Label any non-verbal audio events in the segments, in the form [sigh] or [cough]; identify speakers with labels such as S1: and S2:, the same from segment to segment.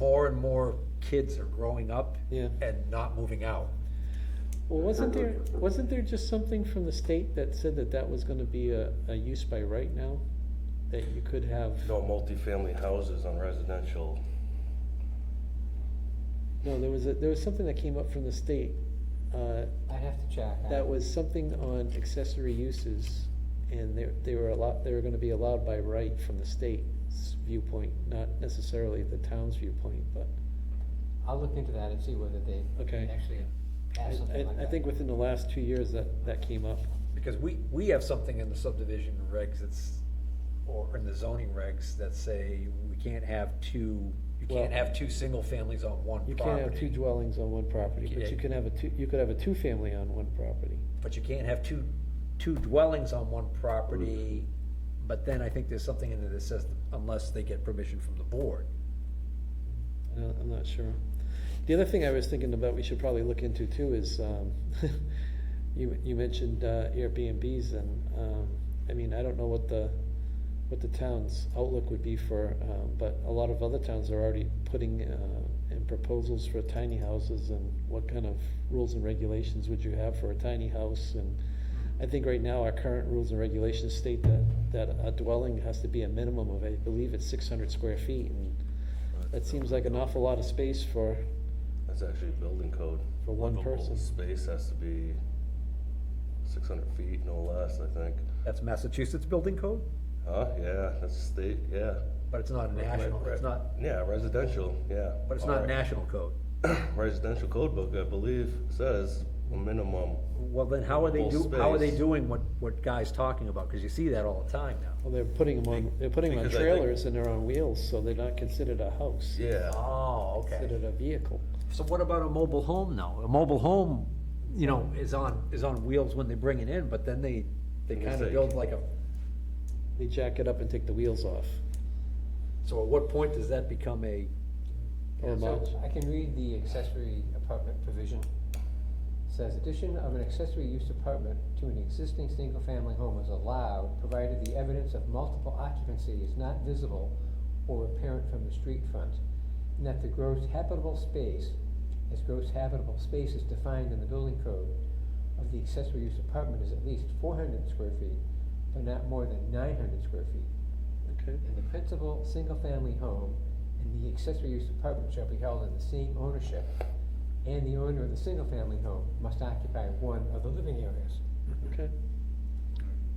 S1: more and more kids are growing up
S2: Yeah.
S1: and not moving out.
S2: Well, wasn't there, wasn't there just something from the state that said that that was gonna be a, a use by right now? That you could have,
S3: No multifamily houses on residential.
S2: no, there was a, there was something that came up from the state, uh,
S4: I'd have to check. I-
S2: that was something on accessory uses. And they, they were allowed, they were gonna be allowed by right from the state's viewpoint, not necessarily the town's viewpoint, but.
S4: I'll look into that and see whether they
S2: Okay.
S4: actually
S2: I,
S4: have something like
S2: I-
S4: that.
S2: I think within the last two years that, that came up.
S1: Because we, we have something in the subdivision regs that's, or in the zoning regs that say we can't have two, you can't
S2: Well-
S1: have two single families on one
S2: You can't have two
S1: property.
S2: dwellings on one property, but you
S1: Yeah.
S2: can have a two, you could have a two-family on one property.
S1: But you can't have two, two dwellings on one property, but then I think there's something in there that says unless they get permission from the board.
S2: I don't- Uh, I'm not sure. The other thing I was thinking about we should probably look into too is, um, [laughs] you, you mentioned uh, Airbnbs and, um, I mean, I don't know what the, what the town's outlook would be for, um, but a lot of other towns are already putting, uh, in proposals for tiny houses and what kind of rules and regulations would you have for a tiny house and I think right now our current rules and regulations state that, that a dwelling has to be a minimum of, I believe it's six hundred square feet and that seems like an awful lot of space for,
S3: That's actually building code.
S2: for one
S3: Livable
S2: person.
S3: Space has to be six hundred feet, no less, I think.
S1: That's Massachusetts building code,
S3: Huh, yeah, that's state, yeah.
S1: but it's not a national,
S3: Right,
S1: it's
S3: right.
S1: not,
S3: Yeah, residential, yeah.
S1: but it's
S3: All
S1: not
S3: right.
S1: national code.
S3: [clears throat] Residential code book, I believe, says a minimum.
S1: Well, then how are they do,
S3: Livable
S1: how are they
S3: space.
S1: doing what, what Guy's talking about? Cause you see that all the time now.
S2: Well, they're putting them on, they're putting them on
S3: Because I think-
S2: trailers and they're on wheels, so they're not considered a house,
S3: Yeah.
S1: Oh,
S2: considered a vehicle.
S1: So what about a mobile home now? A mobile home, you know, is on, is on wheels when they bring it in, but then they, they
S3: Yes,
S1: kind of
S3: they-
S1: build like a,
S2: They jack it up and take the wheels off,
S1: so at what point does that become a,
S2: or a mod-
S4: So I can read the accessory apartment provision. Says addition of an accessory use apartment to an existing single-family home is allowed, provided the evidence of multiple occupancy is not visible or apparent from the street front, and that the gross habitable space, as gross habitable space is defined in the building code, of the accessory use apartment is at least four hundred square feet, but not more than nine hundred square feet.
S2: Okay,
S4: And the principal single-family home and the accessory use apartment shall be held in the same ownership, and the owner of the single-family home must occupy one of the living areas.
S2: okay.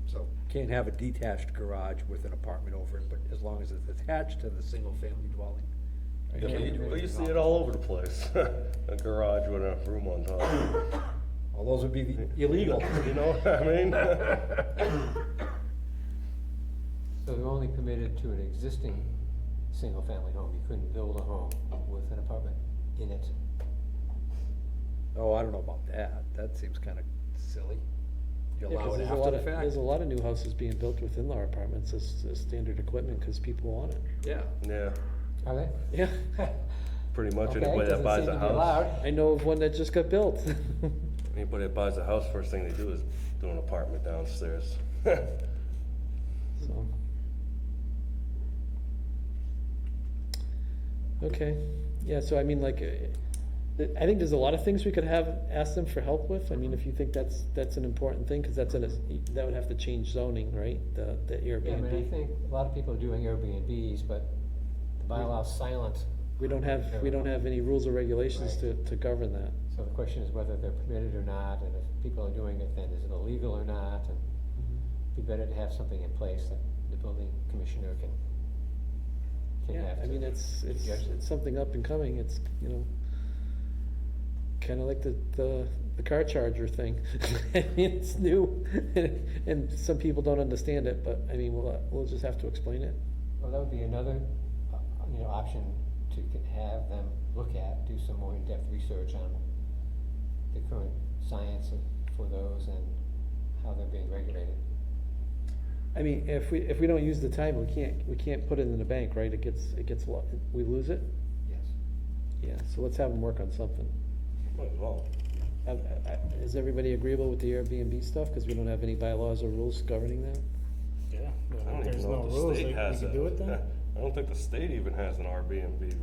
S1: so, can't have a detached garage with an apartment over it, but as long as it's attached to the single-family dwelling.
S3: Yeah, but
S4: Yeah.
S3: you, well, you see it all over the place. [laughs] A garage with a room on top.
S1: Well, those would be
S3: [laughs]
S1: the- illegal.
S3: You know what [laughs] I mean?
S4: So they're only permitted to an existing single-family home, you couldn't build a home with an apartment in it.
S1: Oh, I don't know about that. That seems kind of silly. You
S2: Yeah, 'cause
S1: allow it
S2: there's a lot
S1: after the
S2: of- There's
S1: fact.
S2: a lot of new houses being built with in-law apartments as, as standard equipment, cause people want it.
S1: Yeah.
S3: Yeah,
S4: Are they?
S2: Yeah,
S3: pretty much
S4: [laughs] Okay,
S3: anybody that
S4: doesn't
S3: buys
S4: seem
S3: a
S4: to be
S3: house.
S4: allowed.
S2: I know of one that just got built. [laughs]
S3: Anybody that buys a house, first thing they do is do an apartment downstairs. [laughs] Well,
S2: So. Okay, yeah, so I mean, like, eh, th- I think there's a lot of things we could have, ask them for help with, I mean, if you think that's, that's an important thing, cause that's in a, s- that would have to change zoning, right? The, the
S4: Yeah, I mean, I
S2: Airbnb,
S4: think a lot of people are doing Airbnbs, but the bylaw's silent,
S2: we don't have, we don't have any rules or regulations to, to govern that.
S4: so the question is whether they're permitted or not, and if people are doing it, then is it illegal or not, and be better to have something in place that the building commissioner can, can
S2: Yeah,
S4: have.
S2: I
S4: to-
S2: mean, it's, it's,
S4: Yes.
S2: it's something up and coming, it's, you know, kinda like the, the, the car charger thing. [laughs] I mean, it's new, [laughs] and, and some people don't understand it, but, I mean, we'll, uh, we'll just have to explain it.
S4: Well, that would be another, uh, you know, option to c- have them look at, do some more in-depth research on the current science of- for those and how they're being regulated.
S2: I mean, if we, if we don't use the time, we can't, we can't put it in the bank, right? It gets, it gets, lo- we lose it?
S4: Yes.
S2: Yeah, so let's have them work on something.
S3: well,
S2: Uh, uh, Is everybody agreeable with the Airbnb stuff? Cause we don't have any bylaws or rules governing that?
S5: Yeah,
S3: I
S5: well,
S3: don't
S5: if
S3: even
S5: there's
S3: know
S5: no
S3: if the
S5: rules, they
S3: state
S5: we
S3: [laughs] has
S5: can
S3: a-
S5: do it then?
S3: I don't think the state even has an Airbnb